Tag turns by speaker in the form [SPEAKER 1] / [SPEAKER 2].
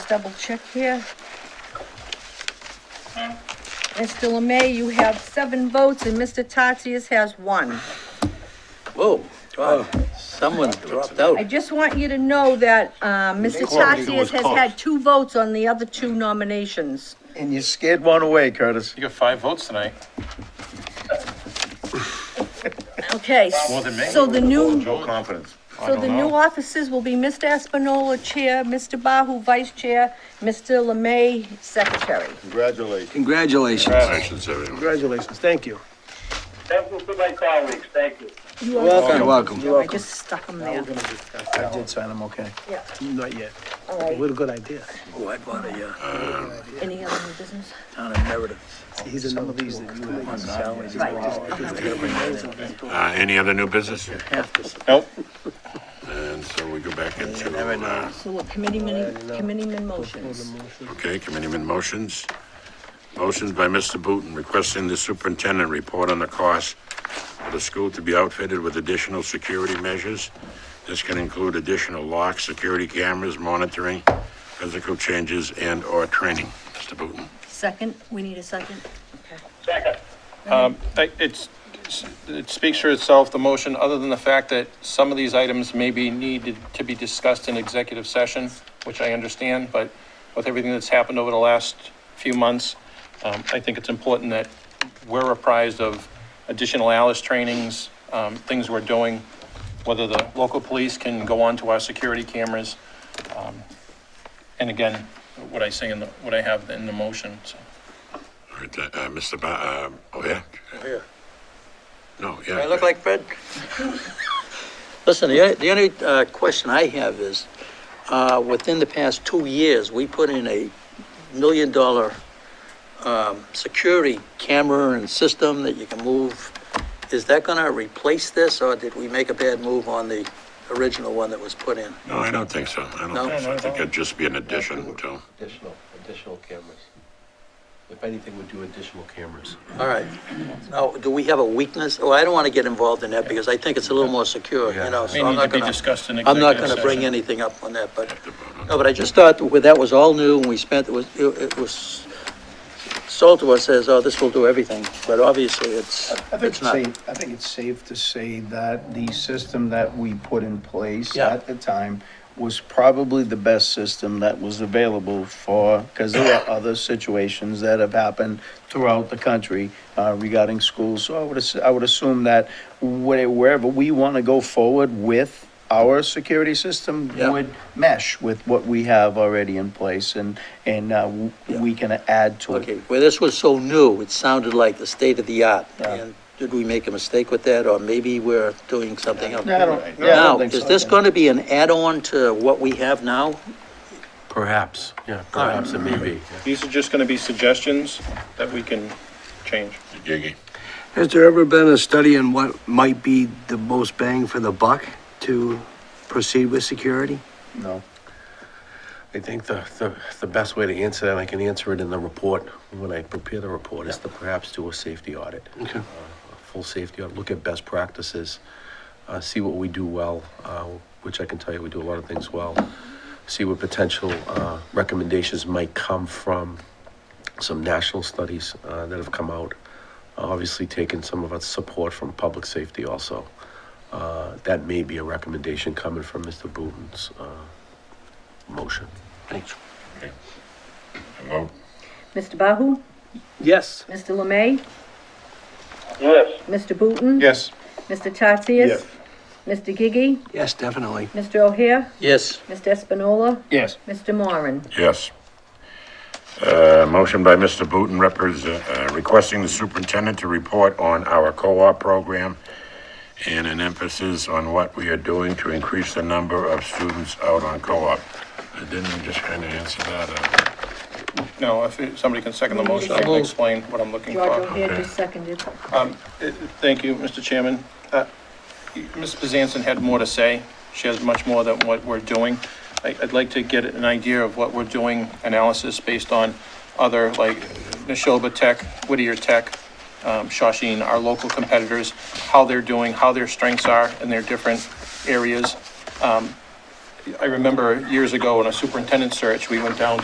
[SPEAKER 1] double check here. Mr. Lemay, you have seven votes, and Mr. Tatsias has one.
[SPEAKER 2] Whoa, wow, someone dropped
[SPEAKER 1] I
[SPEAKER 2] out.
[SPEAKER 1] just want you to know that, uh, Mr.
[SPEAKER 3] Quality
[SPEAKER 1] Tatsias
[SPEAKER 3] was
[SPEAKER 1] has
[SPEAKER 3] close.
[SPEAKER 1] had two votes on the other two nominations.
[SPEAKER 4] And you scared one away, Curtis.
[SPEAKER 3] You got five votes tonight.
[SPEAKER 1] Okay,
[SPEAKER 3] More than me.
[SPEAKER 1] so the new,
[SPEAKER 3] Joe confidence.
[SPEAKER 1] so the new offices will be Mr. Espinola Chair, Mr. Bahu Vice Chair, Mr. Lemay Secretary.
[SPEAKER 3] Congratulations.
[SPEAKER 2] Congratulations.
[SPEAKER 3] Congratulations,
[SPEAKER 5] Uh,
[SPEAKER 3] everyone.
[SPEAKER 6] Congratulations, thank you.
[SPEAKER 7] Thank you to my colleagues, thank you.
[SPEAKER 1] You are
[SPEAKER 2] You're welcome.
[SPEAKER 1] I just stuck them
[SPEAKER 6] Now
[SPEAKER 1] there.
[SPEAKER 6] we're gonna discuss that.
[SPEAKER 4] I did sign them, okay.
[SPEAKER 1] Yeah,
[SPEAKER 6] Not yet.
[SPEAKER 1] all
[SPEAKER 6] A
[SPEAKER 1] right.
[SPEAKER 6] little good idea.
[SPEAKER 2] Oh, I bought a, uh,
[SPEAKER 1] Any other new business?
[SPEAKER 2] town in Meredith.
[SPEAKER 6] He's in one of these that you would like to sell.
[SPEAKER 1] Right.
[SPEAKER 5] Uh, any other new business?
[SPEAKER 2] Half this.
[SPEAKER 3] Nope.
[SPEAKER 5] And so we go back into,
[SPEAKER 2] never know.
[SPEAKER 5] uh,
[SPEAKER 1] So what, committee men, committee men motions?
[SPEAKER 5] okay, committeeman motions. Motions by Mr. Booton requesting the superintendent report on the cost for the school to be outfitted with additional security measures. This can include additional locks, security cameras, monitoring, physical changes, and/or training. Mr. Booton.
[SPEAKER 1] Second, we need a second? Okay.
[SPEAKER 7] Second.
[SPEAKER 3] I- It's, it speaks for itself, the motion, other than the fact that some of these items may be needed to be discussed in executive session, which I understand, but with everything that's happened over the last few months, um, I think it's important that we're apprised of additional Alice trainings, um, things we're doing, whether the local police can go onto our security cameras. um, And again, what I say in the, what I have in the motion, so.
[SPEAKER 5] All right, uh, uh, Mr. Ba, uh, oh yeah?
[SPEAKER 2] yeah.
[SPEAKER 5] No, yeah.
[SPEAKER 2] Do I look like Fred? Listen, the, the only, uh, question I have is, uh, within the past two years, we put in a million dollar, um, security camera and system that you can move. Is that gonna replace this, or did we make a bad move on the original one that was put in?
[SPEAKER 5] No, I don't think so. I
[SPEAKER 2] No?
[SPEAKER 5] don't think so. I think it'd just be an addition to.
[SPEAKER 8] Additional, additional cameras. If anything, we'd do additional cameras.
[SPEAKER 2] All right. Now, do we have a weakness? Oh, I don't want to get involved in that because I think it's a little more secure, you know,
[SPEAKER 3] May
[SPEAKER 2] so I'm
[SPEAKER 3] need to
[SPEAKER 2] not
[SPEAKER 3] be
[SPEAKER 2] gonna,
[SPEAKER 3] discussed in
[SPEAKER 2] I'm not
[SPEAKER 3] executive
[SPEAKER 2] gonna
[SPEAKER 3] session.
[SPEAKER 2] bring anything up on that, but, no, but I just thought that that was all new and we spent, it was, it it was sold to us as, oh, this will do everything, but obviously it's,
[SPEAKER 4] I
[SPEAKER 2] it's
[SPEAKER 4] think it's
[SPEAKER 2] not.
[SPEAKER 4] safe, I think it's safe to say that the system that we put in place
[SPEAKER 2] Yeah.
[SPEAKER 4] at the time was probably the best system that was available for, because there are other situations that have happened throughout the country uh, regarding schools. So I would, ass- I would assume that where- wherever we want to go forward with our security system
[SPEAKER 2] Yeah.
[SPEAKER 4] would mesh with what we have already in place and, and uh, w- we can add to it.
[SPEAKER 2] Okay, well, this was so new, it sounded like the state of the art.
[SPEAKER 4] Yeah.
[SPEAKER 2] And did we make a mistake with that, or maybe we're doing something else?
[SPEAKER 4] No, I don't- yeah, I don't
[SPEAKER 2] Now,
[SPEAKER 4] think
[SPEAKER 2] is
[SPEAKER 4] so.
[SPEAKER 2] this going to be an add-on to what we have now?
[SPEAKER 8] Perhaps, yeah, perhaps it may be.
[SPEAKER 3] These are just gonna be suggestions that we can change.
[SPEAKER 5] Gigi.
[SPEAKER 9] Has there ever been a study on what might be the most bang for the buck to proceed with security?
[SPEAKER 4] No.
[SPEAKER 8] I think the, the, the best way to answer that, I can answer it in the report, when I prepare the report, is to perhaps do a safety audit. Uh,
[SPEAKER 9] Okay.
[SPEAKER 8] A Full safety audit, look at best practices, uh, see what we do well, uh, which I can tell you, we do a lot of things well. See what potential, uh, recommendations might come from some national studies, uh, that have come out. Obviously taking some of our support from public safety also. Uh, that may be a recommendation coming from Mr. Booton's, uh, motion.
[SPEAKER 9] Thanks.
[SPEAKER 5] Vote.
[SPEAKER 1] Mr. Bahu?
[SPEAKER 6] Yes.
[SPEAKER 1] Mr. Lemay?
[SPEAKER 7] Yes,
[SPEAKER 1] Mr. Booton?
[SPEAKER 3] Yes.
[SPEAKER 1] Mr. Tatsias? Mr. Gigi?
[SPEAKER 9] Yes, definitely.
[SPEAKER 1] Mr. O'Hare?
[SPEAKER 2] Yes.
[SPEAKER 1] Mr. Espinola?
[SPEAKER 4] Yes.
[SPEAKER 1] Mr. Moran?
[SPEAKER 5] Yes. Uh, motion by Mr. Booton represent, uh, requesting the superintendent to report on our co-op program and an emphasis on what we are doing to increase the number of students out on co-op. Uh, Didn't we just kind of answer that? uh,
[SPEAKER 3] No, if it- somebody can second the motion, I can explain what I'm looking
[SPEAKER 1] George
[SPEAKER 3] for.
[SPEAKER 1] O'Hare just seconded.
[SPEAKER 3] Uh, Thank you, Mr. Chairman. Uh, Ms. Bezanson had more to say. She has much more than what we're doing. I- I'd like to get an idea of what we're doing, analysis based on other, like Neshoba Tech, Whittier Tech, um, Shawshene, our local competitors, how they're doing, how their strengths are in their different areas. Um, I remember years ago in a superintendent search, we went down